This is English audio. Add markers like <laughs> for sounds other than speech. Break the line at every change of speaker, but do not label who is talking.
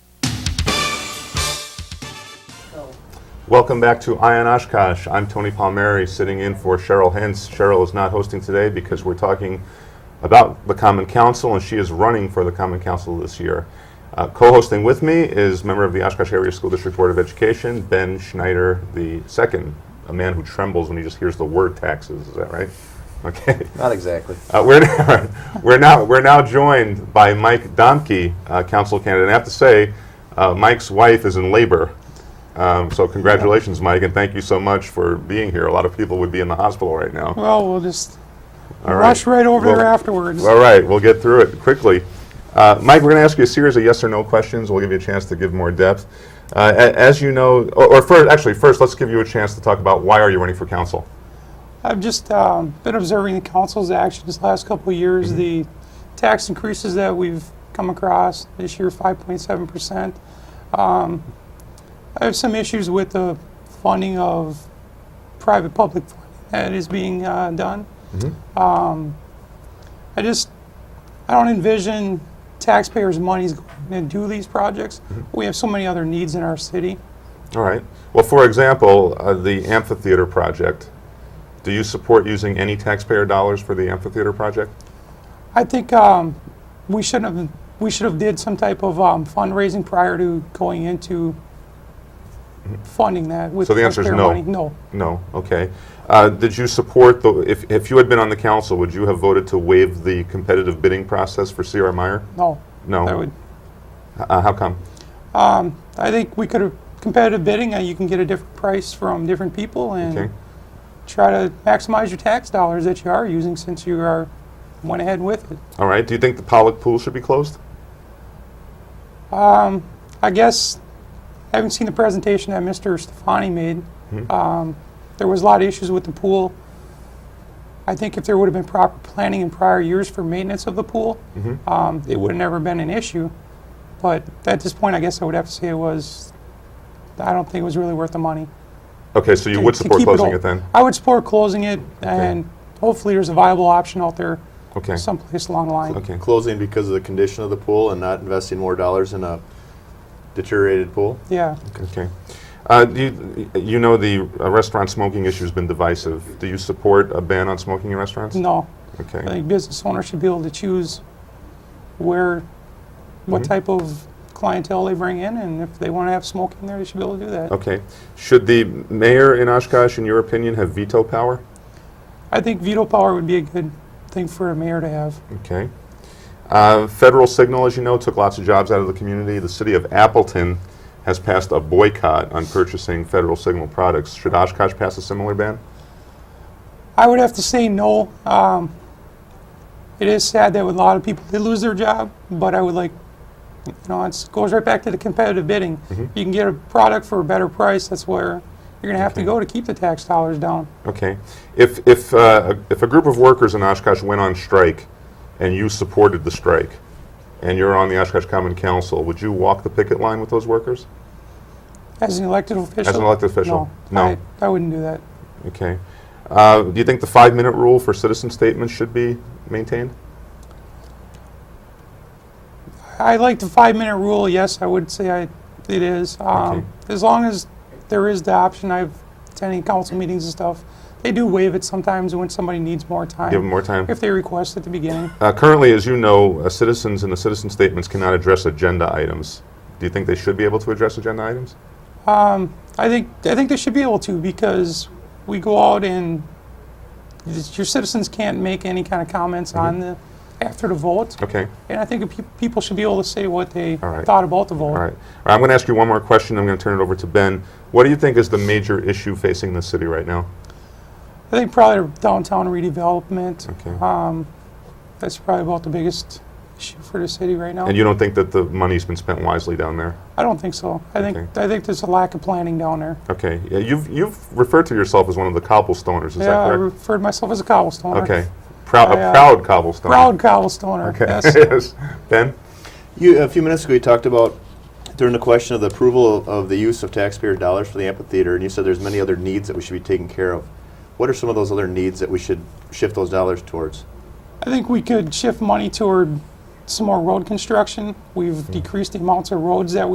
so.
Welcome back to Ion Oshkosh. I'm Tony Palmieri, sitting in for Cheryl Hintz. Cheryl is not hosting today because we're talking about the Common Council, and she is running for the Common Council this year. Uh, co-hosting with me is member of the Oshkosh Area School District Board of Education, Ben Schneider the second, a man who trembles when he just hears the word taxes. Is that right? <laughs> Okay.
Not exactly.
Uh, we're, we're <laughs> now we're now joined by Mike Domke, uh, council candidate. And I have to say, uh, Mike's wife is in labor, um, so congratulations, Mike, and thank you so much for being here. A lot of people would be in the hospital right now.
Well, we'll just
All
rush right over
Well,
there afterwards.
All right, we'll get through it quickly. Uh, Mike, we're going to ask you a series of yes or no questions. We'll give you a chance to give more depth. Uh, a- as you know, or, or first, actually, first, let's give you a chance to talk about why are you running for council.
I've just um, been observing the council's actions the last couple of years,
Mm-hmm.
the tax increases that we've come across this year, 5.7%. Um, I have some issues with the funding of private public that is being uh, done.
Mm-hmm.
Um, I just, I don't envision taxpayers' monies going to do these projects.
Mm-hmm.
We have so many other needs in our city.
All right. Well, for example, uh, the amphitheater project. Do you support using any taxpayer dollars for the amphitheater project?
I think um, we should have we should have did some type of um, fundraising prior to going into funding that with
So the answer is
taxpayer
no.
money. No,
No. Okay. Uh, did you support the? If, if you had been on the council, would you have voted to waive the competitive bidding process for Sierra Meyer?
no.
No.
I would.
Uh, how come?
I think we could have competitive bidding. Uh, you can get a different price from different people and
Okay.
try to maximize your tax dollars that you are using since you are went ahead with it.
All right. Do you think the Pollock pool should be closed?
I guess I haven't seen the presentation that Mr. Stefani made.
Hmm.
Um, there was a lot of issues with the pool. I think if there would have been proper planning in prior years for maintenance of the pool,
Mm-hmm.
um, it would have never been an issue. But at this point, I guess I would have to say it was. I don't think it was really worth the money.
Okay. So you
to-
would
to
support
keep
closing
all-
it, then?
I would support closing it, and hopefully there's a viable option out there,
Okay.
someplace along the line.
Okay.
Closing because of the condition of the pool and not investing more dollars in a deteriorated pool?
Yeah.
Okay. Uh, do you, you know the uh, restaurant smoking issue has been divisive. Do you support a ban on smoking in restaurants?
No.
Okay.
I think business owners should be able to choose where, what type of clientele they bring in, and if they want to have smoking there, they should be able to do that.
Okay. Should the mayor in Oshkosh, in your opinion, have veto power?
I think veto power would be a good thing for a mayor to have.
Okay. Uh, Federal Signal, as you know, took lots of jobs out of the community. The city of Appleton has passed a boycott on purchasing Federal Signal products. Should Oshkosh pass a similar ban?
I would have to say no. Um, it is sad that with a lot of people, they lose their job, but I would like, you know, it goes right back to the competitive bidding. You can get a product for a better price, that's where you're going to have to go to keep the tax dollars down.
Okay. If, if, uh, if a group of workers in Oshkosh went on strike and you supported the strike and you're on the Oshkosh Common Council, would you walk the picket line with those workers?
As an elected official?
elected official,
No,
no.
I, I wouldn't do that.
Okay. Uh, do you think the five minute rule for citizen statements should be maintained?
I like the five-minute rule, yes, I would say I, it is.
Okay.
Um, as long as there is the option, I've attended council meetings and stuff. They do waive it sometimes when somebody needs more time.
Give them more time?
If they request at the beginning.
Uh, Currently, as you know, uh, citizens and the citizen statements cannot address agenda items. Do you think they should be able to address agenda items?
I think, I think they should be able to because we go out and it's- your citizens can't make any kind of comments
Mm-hmm.
on the, after the vote.
Okay,
And I think peop- people should be able to say what they
All right.
thought about the vote.
all right. All right, I'm going to ask you one more question, I'm going to turn it over to Ben. What do you think is the major issue facing the city right now?
I think probably downtown redevelopment.
Okay.
Um, that's probably about the biggest issue for the city right now.
And you don't think that the money's been spent wisely down there?
I don't think so. I think
Okay.
I think there's a lack of planning down there.
Okay, Yeah, you've you've referred to yourself as one of the cobblestoners, is
yeah,
that
I
correct?
referred myself as a cobblestoner.
Okay, proud,
I,
a
uh,
proud cobblestoner.
Proud cobblestoner.
Okay,
Yes.
<laughs> yes. Ben?
You, a few minutes ago, you talked about during the question of the approval of- of the use of taxpayer dollars for the amphitheater, and you said there's many other needs that we should be taking care of. What are some of those other needs that we should shift those dollars towards?
I think we
Hmm.
could shift money toward some more road construction. We've decreased the amounts of roads that we